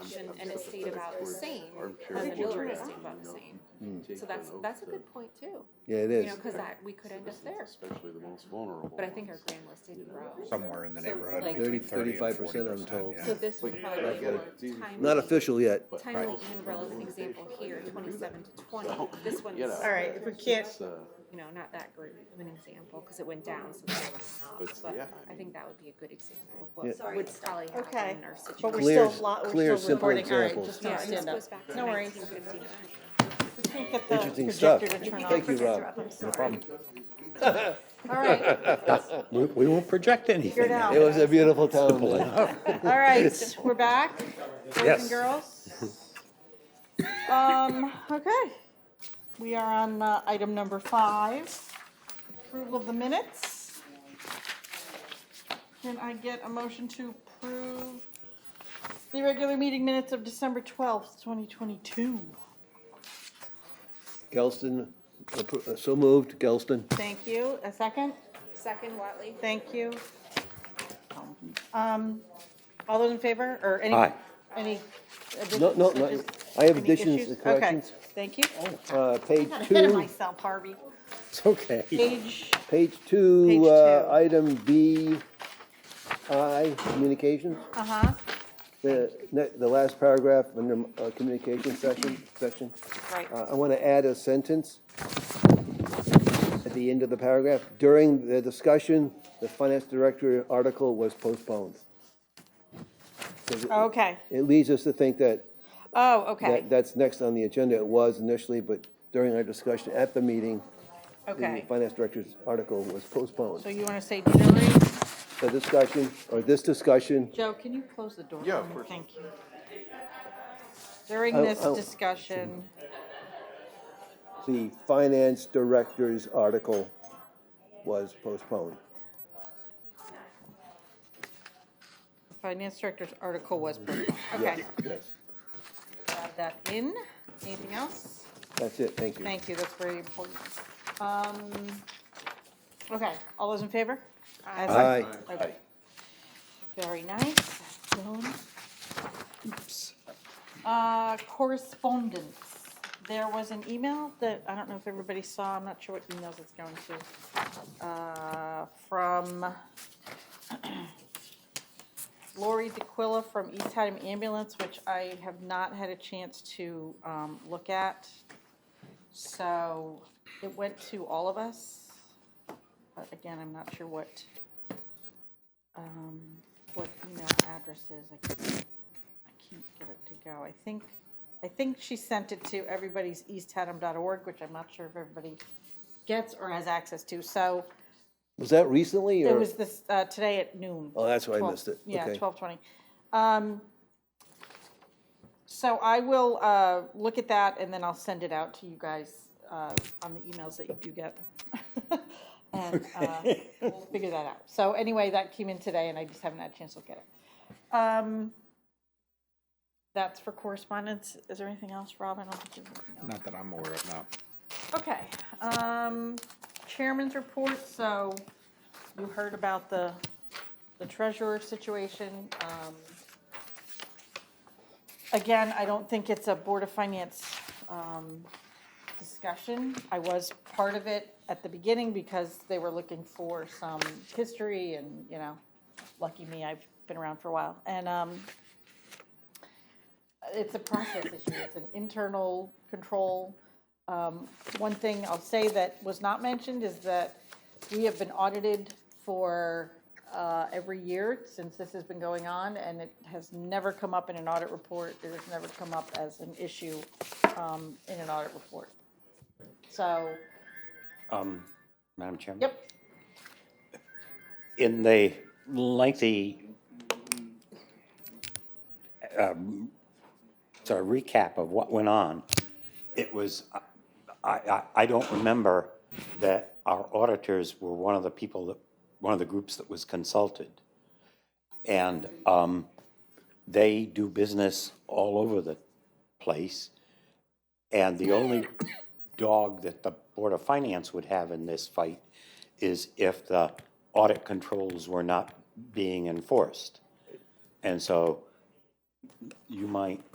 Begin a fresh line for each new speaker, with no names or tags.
and it stayed about the same,
Armchair
and the mill
quarterback,
rate stayed about
you
the
know,
same.
you can Mm-hmm. take
So that's,
that out
that's a
to-
good point too,
Yeah, it
you know,
is.
cause that, we could end up there,
Especially the most vulnerable.
but I think our
ones.
grand list didn't grow.
somewhere in the
So,
neighborhood
like-
30,
between thirty and
35%,
forty
I'm
percent.
told.
So this would
Like,
probably
like,
be
yeah,
more
it's easy for
timely.
me.
Not official yet.
But-
Timely Amarillo is an example here, twenty-seven to twenty, this one's,
You know.
All right, if we can't,
It's, uh,
you know, not that great of an example, cause it went down, so that was up.
But, yeah, I
But I
mean-
think that would be a good example of
Yeah.
what would probably
Okay.
happen in our
but we're
situation.
Clear-
still, lo-
clear,
we're still
simple
recording, all right,
examples.
just
Yeah,
don't
and
stand
this
up.
goes back to
No worries.
nineteen fifty-nine.
We can't get the
Interesting stuff.
projector to turn
Thank
off.
you, Rob.
No problem.
All right,
We, we won't project
figure it
anything.
out.
It was a beautiful town.
All right, we're back, boys and
Yes.
girls. Um, okay, we are on uh, item number five, approval of the minutes. Can I get a motion to approve the regular meeting minutes of December twelfth, twenty twenty-two?
Gelston, appro- uh, so moved, Gelston.
Thank you, a second?
Second, Watley?
Thank you. Um, all those in favor, or any?
Aye.
Any?
No,
additions,
no, no,
just-
I have
any
additions
issues?
and corrections.
Okay, thank you.
Uh, page
Got ahead of
two,
myself, Harvey.
It's okay.
Page,
page
Page
two, uh,
two.
item B, I, communications.
uh-huh,
The, ne- the last paragraph under uh, communication section, section.
right,
Uh, I want to add a sentence at the end of the paragraph. During the discussion, the finance director article was postponed. 'Cause it-
okay,
It leads us to think that,
oh,
that,
okay,
that's next on the agenda. It was initially, but during our discussion at the meeting, the
okay.
finance director's article was
So
postponed.
you wanna say during,
The discussion, or this discussion,
Joe, can you close the door?
Yeah,
for
of
me?
course.
Thank you. During
Oh,
this
oh.
discussion,
the finance director's article was postponed.
the finance director's article was postponed, okay.
Yes,
Add that in, anything else?
that's it, thank you.
Thank you, that's very important. Um, okay, all those in favor? As-
Aye.
Okay. Very nice, Joan. Uh, correspondence. There was an email that, I don't know if everybody saw, I'm not sure what emails it's going to. Uh, from Lori DeQuilla from East Haddam Ambulance, which I have not had a chance to, um, look at. So it went to all of us, but again, I'm not sure what, um, what email address is. I can't, I can't get it to go. I think, I think she sent it to everybody's easthaddam.org, which I'm not sure if everybody gets or has access to. So
Was that recently, or?
it was this, uh, today at noon.
Oh, that's why I
12
missed it.
Yeah,
Okay.
twelve twenty. Um, so I will, uh, look at that and then I'll send it out to you guys, uh, on the emails that you do get. And, uh, we'll figure that out. So anyway, that came in today and I just haven't had a chance to look at it. Um, that's for correspondence. Is there anything else, Rob? I don't think there's anything else.
Not that I'm aware of, no.
Okay, um, chairman's report, so you heard about the, the treasurer situation. Um, Again, I don't think it's a Board of Finance, um, discussion. I was part of it at the beginning because they were looking for some history and, you know, lucky me, I've been around for a while. And, um, it's a process issue, it's an internal control. Um, One thing I'll say that was not mentioned is that we have been audited for uh, every year since this has been going on, and it has never come up in an audit report, it has never come up as an issue um, in an audit report. So,
Madam Chairman?
yep,
in the lengthy um, sort of recap of what went on, it was, I, I, I don't remember that our auditors were one of the people that, one of the groups that was consulted. And um, they do business all over the place. And the only dog that the Board of Finance would have in this fight is if the audit controls were not being enforced. And so you might